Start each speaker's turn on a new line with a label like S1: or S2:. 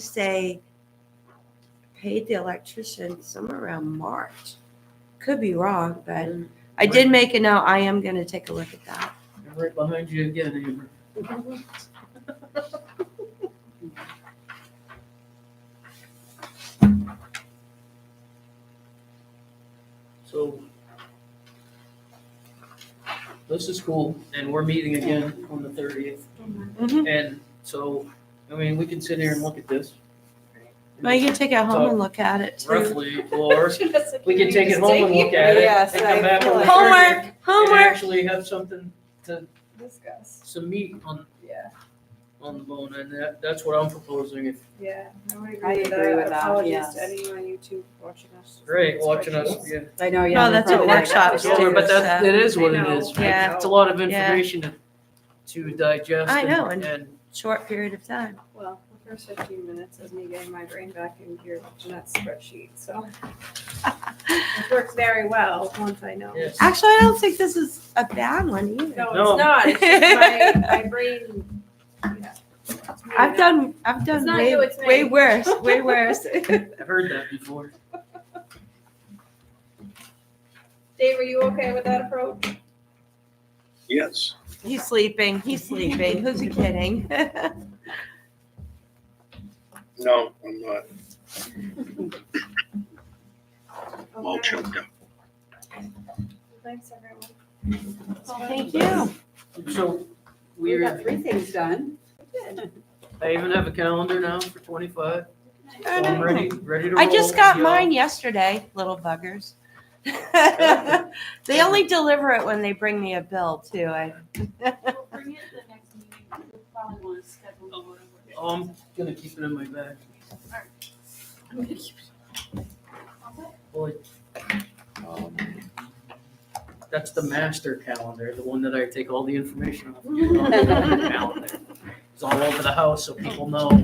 S1: say paid the electrician somewhere around March. Could be wrong, but I did make a note. I am going to take a look at that.
S2: I'm Right behind you again, Amber. So this is cool, and we're meeting again on the thirtieth,
S3: Mm-hmm.
S1: Mhm.
S2: and so, I mean, we can sit here and look at this.
S1: Well, you can take it home and look at it too.
S2: Roughly, or we can take it home and look at it,
S3: Yes,
S2: and come back on the
S3: I
S2: 30th
S3: feel like-
S1: Homework,
S2: And
S1: homework.
S2: actually have something,
S3: Discuss.
S2: some meat on,
S3: Yeah,
S2: on the bone, and that, that's what I'm proposing, if
S3: yeah. I would
S4: I
S3: agree with
S4: agree with
S3: that.
S4: that,
S3: Apologies
S4: yes.
S3: to anyone YouTube watching us.
S2: Great, watching us, yeah.
S4: I know, yeah.
S1: No, that's what
S4: probably like-
S1: workshops
S2: Yeah,
S1: do.
S2: but that,
S1: so-
S2: that is what
S3: I
S2: it
S3: know,
S2: is.
S1: Yeah.
S2: It's a lot of
S1: Yeah.
S2: information to, to digest.
S1: I know,
S2: and-
S1: and-
S2: And
S1: Short period of time.
S3: Well, the first fifteen minutes is me getting my brain back into your Jeanette's spreadsheet, so. It works very well, once I know.
S2: yes,
S1: Actually, I don't think this is a bad one either.
S3: No, it's
S2: No.
S3: not, it's just my, my brain, yeah. It's me
S1: I've
S3: now.
S1: done, I've done
S3: not
S1: way,
S3: you, it's me.
S1: way worse, way worse.
S2: I've heard that before.
S3: Dave, are you okay with that approach?
S5: Yes.
S1: He's sleeping, he's sleeping. Who's he kidding?
S5: No, I'm not. I'm all
S3: Okay.
S5: choked up.
S3: Thanks, everyone.
S1: Thank you.
S2: So
S4: We
S2: we're,
S4: got three things done.
S2: I even have a calendar now for twenty-five. So
S1: I
S2: I'm
S1: know.
S2: ready, ready to roll.
S1: I just got
S2: Yeah.
S1: mine yesterday, little buggers. they only deliver it when they bring me a bill too. I,
S6: We'll bring it to the next meeting, we'll probably want to schedule a vote
S2: Oh, I'm gonna keep it in my bag. Boy. That's the master calendar, the one that I take all the information off. Calendar. It's all over the house, so people know